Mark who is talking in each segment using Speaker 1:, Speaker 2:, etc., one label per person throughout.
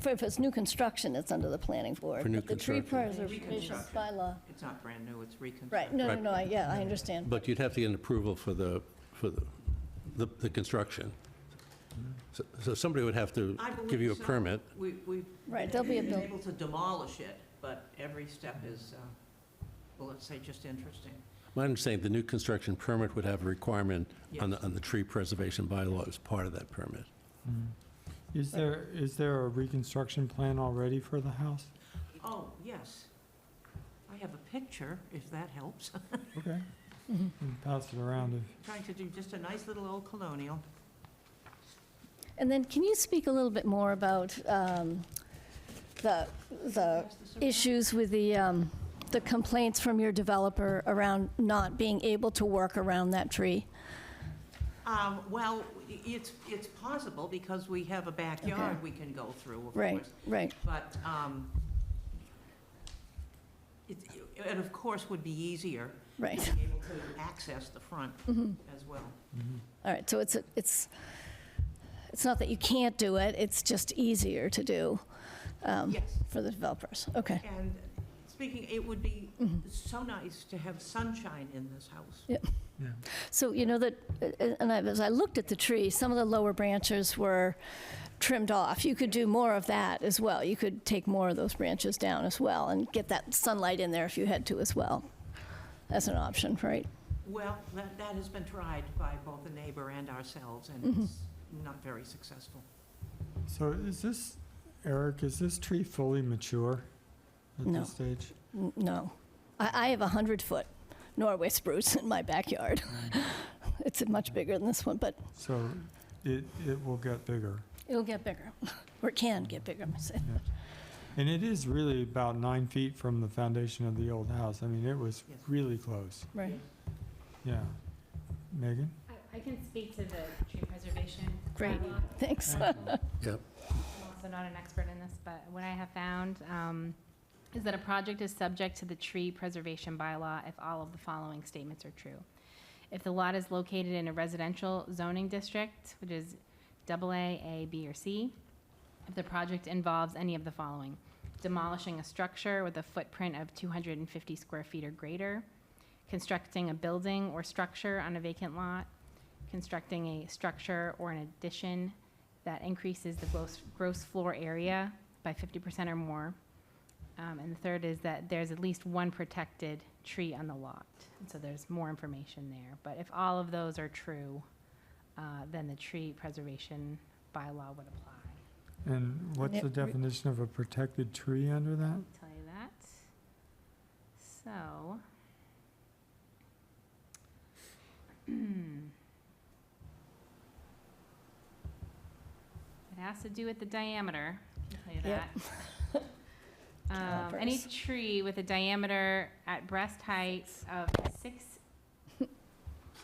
Speaker 1: For, if it's new construction, it's under the planning board.
Speaker 2: For new
Speaker 1: But The tree
Speaker 2: construction.
Speaker 1: preservation bylaw,
Speaker 3: It's not brand new, it's
Speaker 1: right,
Speaker 3: reconstructed.
Speaker 1: no, no,
Speaker 2: Right.
Speaker 1: no, I- yeah, I understand.
Speaker 2: But you'd have to get an approval for the, for the, the, the construction. So- So somebody would have to
Speaker 3: I believe
Speaker 2: give you a
Speaker 3: so.
Speaker 2: permit.
Speaker 3: We, we've
Speaker 1: Right, there'll be a
Speaker 3: been
Speaker 1: bill.
Speaker 3: able to demolish it, but every step is, uh, well, let's say, just interesting.
Speaker 2: My understanding, the new construction permit would have a requirement on the,
Speaker 3: Yes.
Speaker 2: on the tree preservation bylaw as part of that permit.
Speaker 4: Is there, is there a reconstruction plan already for the house?
Speaker 3: Oh, yes. I have a picture, if that helps.
Speaker 4: Okay. Can Pass it around if,
Speaker 3: Trying to do just a nice little old colonial.
Speaker 1: And then can you speak a little bit more about um, the, the
Speaker 3: Pass this around.
Speaker 1: issues with the, um, the complaints from your developer around not being able to work around that tree?
Speaker 3: Um, Well, i- it's, it's possible because we have a backyard we can go through, of
Speaker 1: Right,
Speaker 3: course.
Speaker 1: right,
Speaker 3: But um, it, it of course would be easier
Speaker 1: right. Mm-hmm.
Speaker 3: being able to access the front as well.
Speaker 4: Mm-hmm.
Speaker 1: All right, so it's, a- it's, it's not that you can't do it, it's just easier to do um,
Speaker 3: Yes.
Speaker 1: for the developers. Okay,
Speaker 3: And speaking, it would be
Speaker 1: Mm-hmm.
Speaker 3: so nice to have sunshine in this house.
Speaker 4: yeah.
Speaker 1: so you know that, uh, and I- as I looked at the tree, some of the lower branches were trimmed off. You could do more of that as well. You could take more of those branches down as well and get that sunlight in there if you had to as well. That's an option, right?
Speaker 3: Well, that, that has been tried by both the neighbor and ourselves,
Speaker 1: Mm-hmm.
Speaker 3: and it's not very successful.
Speaker 4: So is this, Eric, is this tree fully mature at
Speaker 1: No.
Speaker 4: this stage?
Speaker 1: N- No. I, I have a 100-foot Norway spruce in my backyard. It's much bigger than this one, but
Speaker 4: So it, it will get bigger.
Speaker 1: It'll get bigger, or it can get bigger, I'm saying.
Speaker 4: yeah. And it is really about nine feet from the foundation of the old house. I mean, it was
Speaker 3: Yes.
Speaker 4: really close.
Speaker 1: Right.
Speaker 4: Yeah. Megan?
Speaker 5: I, I can speak to the tree preservation.
Speaker 1: Great.
Speaker 5: bylaw.
Speaker 1: Thanks.
Speaker 2: Yep.
Speaker 5: I'm also not an expert in this, but what I have found um, is that a project is subject to the tree preservation bylaw if all of the following statements are true. If the lot is located in a residential zoning district, which is double A, A, B, or C, if the project involves any of the following: demolishing a structure with a footprint of 250 square feet or greater, constructing a building or structure on a vacant lot, constructing a structure or an addition that increases the gross, gross floor area by 50% or more. Um, and the third is that there's at least one protected tree on the lot. And so there's more information there. But if all of those are true, uh, then the tree preservation bylaw would apply.
Speaker 4: And what's
Speaker 1: it
Speaker 4: the
Speaker 1: re-
Speaker 4: definition of a protected tree under that?
Speaker 5: I'll tell you that. So. It has to do with the diameter, I'll tell you
Speaker 1: Yep.
Speaker 5: that. Um, any
Speaker 1: Calipers.
Speaker 5: tree with a diameter at breast height of six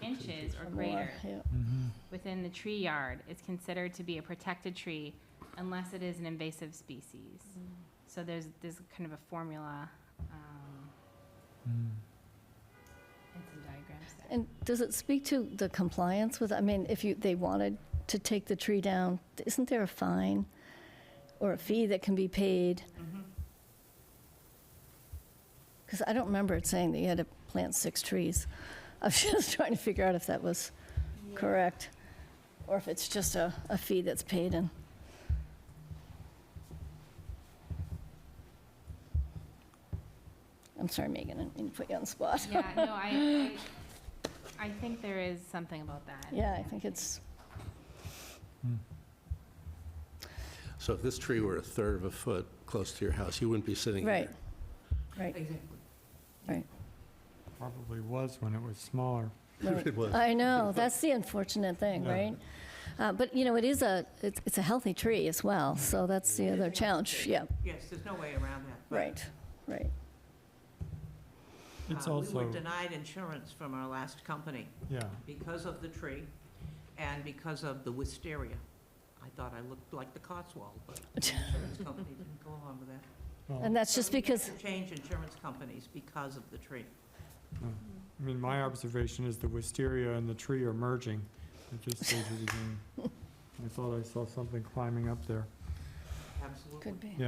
Speaker 5: inches or
Speaker 1: Or more,
Speaker 5: greater
Speaker 1: yeah.
Speaker 4: Mm-hmm.
Speaker 5: within the tree yard is considered to be a protected tree unless it is an invasive species. So there's, there's kind of a formula, um, and some diagrams there.
Speaker 1: And does it speak to the compliance with, I mean, if you, they wanted to take the tree down, isn't there a fine or a fee that can be paid? Because I don't remember it saying that you had to plant six trees. I was just trying to figure out if that was correct, or if it's just a, a fee that's paid and. I'm sorry, Megan, I didn't mean to put you on the spot.
Speaker 5: Yeah, no, I, I, I think there is something about that.
Speaker 1: Yeah, I think it's,
Speaker 2: So if this tree were a third of a foot close to your house, you wouldn't be sitting
Speaker 1: right,
Speaker 2: here.
Speaker 1: right,
Speaker 3: Exactly.
Speaker 1: right.
Speaker 4: Probably was when it was smaller.
Speaker 1: right.
Speaker 2: It was.
Speaker 1: I know, that's the unfortunate thing,
Speaker 4: Yeah.
Speaker 1: right? Uh, But, you know, it is a, it's it's a healthy tree as well, so that's the other challenge, yeah,
Speaker 3: Yes, there's no way around that. but,
Speaker 1: right, right.
Speaker 4: It's
Speaker 3: uh, We
Speaker 4: also,
Speaker 3: were denied insurance from our last company
Speaker 4: yeah,
Speaker 3: because of the tree and because of the wisteria. I thought I looked like the Cotswold, but the insurance company didn't go along with that.
Speaker 1: And
Speaker 4: well,
Speaker 1: that's just
Speaker 3: So we had
Speaker 1: because,
Speaker 3: to Change insurance companies because of the tree.
Speaker 4: I mean, my observation is the wisteria and the tree are merging at this stage of the game. I thought I saw something climbing up there.
Speaker 6: absolutely.
Speaker 3: could be.